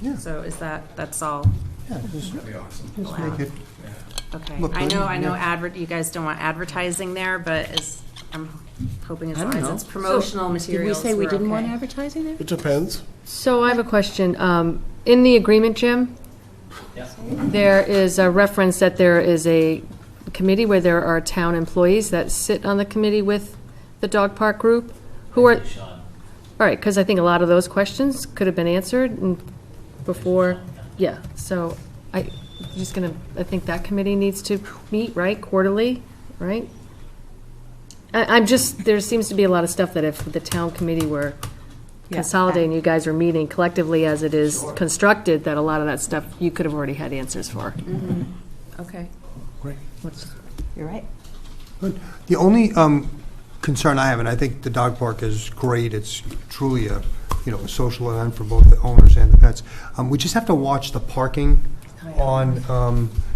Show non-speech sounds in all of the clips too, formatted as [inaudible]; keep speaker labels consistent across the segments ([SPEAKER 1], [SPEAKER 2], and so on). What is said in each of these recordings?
[SPEAKER 1] Yeah.
[SPEAKER 2] So is that, that's all,
[SPEAKER 1] Yeah, just,
[SPEAKER 3] That'd be awesome.
[SPEAKER 1] just make it,
[SPEAKER 2] okay.
[SPEAKER 1] Look,
[SPEAKER 2] I know,
[SPEAKER 1] I-
[SPEAKER 2] I know
[SPEAKER 1] yeah.
[SPEAKER 2] advert, you guys don't want advertising there, but is, I'm hoping as
[SPEAKER 4] I don't
[SPEAKER 2] long as
[SPEAKER 4] know.
[SPEAKER 2] it's promotional materials,
[SPEAKER 4] Did we say we
[SPEAKER 2] we're
[SPEAKER 4] didn't want
[SPEAKER 2] okay.
[SPEAKER 4] advertising there?
[SPEAKER 5] It depends.
[SPEAKER 6] So I have a question. Um, In the agreement, Jim? There is a reference that there is a committee where there are town employees that sit on the committee with the dog park group, who are, all right, because I think a lot of those questions could have been answered and before, yeah, so I, just gonna, I think that committee needs to meet, right, quarterly, right? I, I'm just, there seems to be a lot of stuff that if the town committee were consolidating, you guys were meeting collectively as it is constructed, that a lot of that stuff you could have already had answers for.
[SPEAKER 2] Okay.
[SPEAKER 1] great.
[SPEAKER 4] You're right.
[SPEAKER 1] Good. The only um, concern I have, and I think the dog park is great, it's truly a, you know, a social event for both the owners and the pets. Um, We just have to watch the parking on,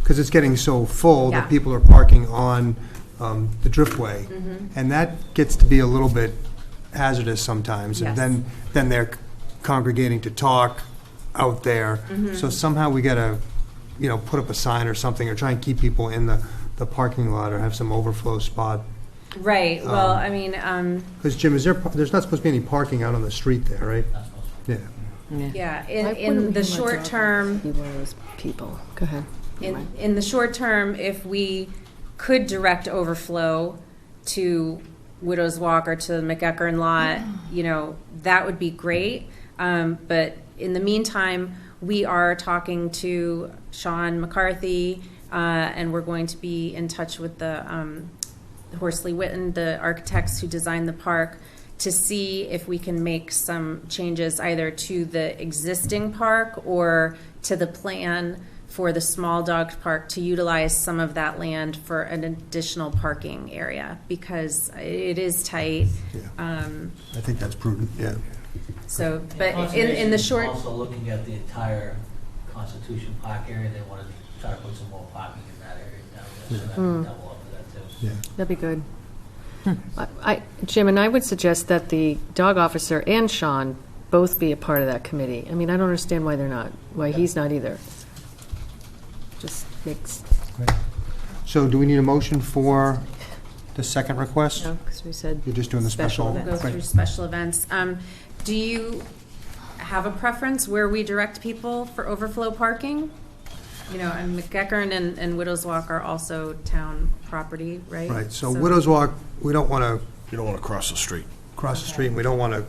[SPEAKER 1] because it's getting so full
[SPEAKER 2] Yeah.
[SPEAKER 1] that people are parking on um, the driftway. And that gets to be a little bit hazardous sometimes.
[SPEAKER 2] Yes.
[SPEAKER 1] And then, then they're congregating to talk out there. So somehow we gotta, you know, put up a sign or something, or try and keep people in the, the parking lot, or have some overflow spot.
[SPEAKER 2] Right, well, I mean, um,
[SPEAKER 1] Because Jim, is there, par- there's not supposed to be any parking out on the street there, right? Yeah.
[SPEAKER 2] yeah,
[SPEAKER 6] Why
[SPEAKER 2] in,
[SPEAKER 6] wouldn't
[SPEAKER 2] in
[SPEAKER 6] we
[SPEAKER 2] the
[SPEAKER 6] have a
[SPEAKER 2] short
[SPEAKER 6] dog?
[SPEAKER 2] term,
[SPEAKER 4] You were those people.
[SPEAKER 6] Go ahead.
[SPEAKER 2] In, in the short term, if we could direct overflow to Widows Walk or to the McEckern lot, you know, that would be great. Um, but in the meantime, we are talking to Sean McCarthy, uh, and we're going to be in touch with the, um, Horsley Witten, the architects who designed the park, to see if we can make some changes either to the existing park or to the plan for the small dog park to utilize some of that land for an additional parking area because it is tight. Um,
[SPEAKER 1] I think that's prudent, yeah.
[SPEAKER 2] So, but in, in the short,
[SPEAKER 7] Conservation is also looking at the entire Constitution Park area, they want to try to put some more parking in that area down there, so that can
[SPEAKER 2] Hmm.
[SPEAKER 7] double up for that too.
[SPEAKER 1] Yeah.
[SPEAKER 6] That'd be good. I- I, Jim, and I would suggest that the dog officer and Sean both be a part of that committee. I mean, I don't understand why they're not, why he's not either. Just makes,
[SPEAKER 1] So do we need a motion for the second request?
[SPEAKER 6] no, because we said.
[SPEAKER 1] You're just doing the special.
[SPEAKER 6] event.
[SPEAKER 2] go through special events. Um, Do you have a preference where we direct people for overflow parking? You know, and McGeckern and, and Widows Walk are also town property, right?
[SPEAKER 1] Right, so Widows Walk, we don't want to
[SPEAKER 5] You don't want to cross the street.
[SPEAKER 1] cross the street, and we don't want to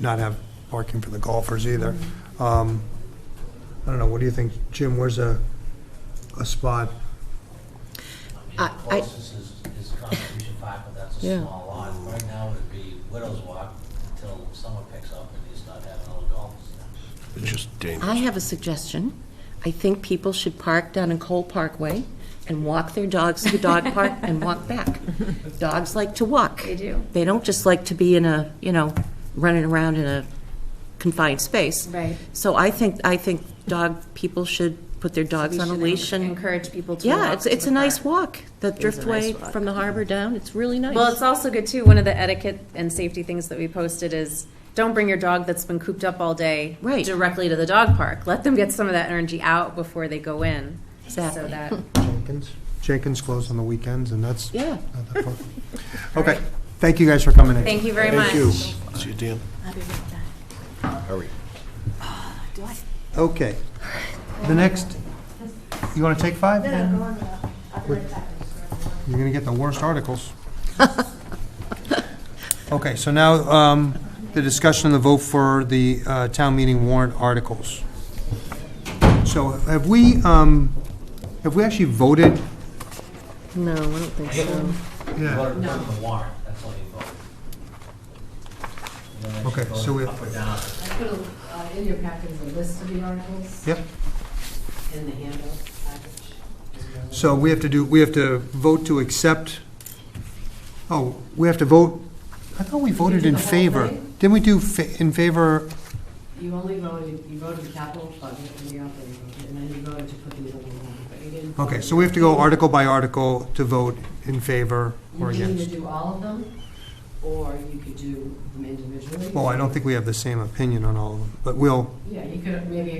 [SPEAKER 1] not have parking for the golfers either. Um, I don't know, what do you think, Jim, where's a, a spot?
[SPEAKER 7] I mean,
[SPEAKER 6] I- I-
[SPEAKER 7] The closest is, is Constitution Park, but that's
[SPEAKER 6] Yeah.
[SPEAKER 7] a small lot. Right now, it'd be Widows Walk until summer picks up and you start having all the golfers there.
[SPEAKER 5] It's just dangerous.
[SPEAKER 4] I have a suggestion. I think people should park down in Cole Parkway and walk their dogs to
[SPEAKER 2] [laughs]
[SPEAKER 4] the dog park and walk back. Dogs like to walk.
[SPEAKER 2] They do.
[SPEAKER 4] They don't just like to be in a, you know, running around in a confined space.
[SPEAKER 2] Right.
[SPEAKER 4] So I think, I think dog, people should put their dogs
[SPEAKER 2] We
[SPEAKER 4] on a
[SPEAKER 2] should
[SPEAKER 4] leash and,
[SPEAKER 2] Encourage people to walk.
[SPEAKER 4] yeah, it's,
[SPEAKER 2] to
[SPEAKER 4] it's
[SPEAKER 2] the
[SPEAKER 4] a nice
[SPEAKER 2] park.
[SPEAKER 4] walk. The
[SPEAKER 6] is a nice
[SPEAKER 4] driftway
[SPEAKER 6] walk.
[SPEAKER 4] from the harbor down, it's really nice.
[SPEAKER 2] Well, it's also good too, one of the etiquette and safety things that we posted is, don't bring your dog that's been cooped up all day.
[SPEAKER 4] Right.
[SPEAKER 2] Directly to the dog park. Let them get some of that energy out before they go in. So
[SPEAKER 4] Exactly.
[SPEAKER 2] that,
[SPEAKER 1] Jenkins? Jenkins closed on the weekends, and that's.
[SPEAKER 4] Yeah.
[SPEAKER 1] not that far. Okay, thank you guys for coming in.
[SPEAKER 2] thank you very much.
[SPEAKER 1] Thank you.
[SPEAKER 5] See you, Dan. Hurry.
[SPEAKER 1] Okay. The next, you want to take five? You're going to get the worst articles. Okay, so now um, the discussion and the vote for the uh, town meeting warrant articles. So have we, um, have we actually voted?
[SPEAKER 6] No, I don't think so.
[SPEAKER 7] You
[SPEAKER 1] Yeah.
[SPEAKER 7] voted on the warrant, that's all you voted. You don't actually
[SPEAKER 1] Okay, so
[SPEAKER 7] vote
[SPEAKER 1] we-
[SPEAKER 7] Up or down.
[SPEAKER 8] I put uh, in your packet the list of the articles
[SPEAKER 1] Yep.
[SPEAKER 8] in the handout package.
[SPEAKER 1] So we have to do, we have to vote to accept, oh, we have to vote, I thought we voted
[SPEAKER 8] did
[SPEAKER 1] in
[SPEAKER 8] the whole
[SPEAKER 1] favor.
[SPEAKER 8] thing?
[SPEAKER 1] Didn't we do fa- in favor
[SPEAKER 8] You only voted, you voted the capital budget and the operating budget, and then you voted to put the other one on, but you didn't.
[SPEAKER 1] Okay, so we have to go article by article to vote in favor
[SPEAKER 8] You
[SPEAKER 1] or
[SPEAKER 8] can either
[SPEAKER 1] against.
[SPEAKER 8] do all of them, or you could do them individually.
[SPEAKER 1] Well, I don't think we have the same opinion on all of them, but we'll,
[SPEAKER 8] Yeah, you could maybe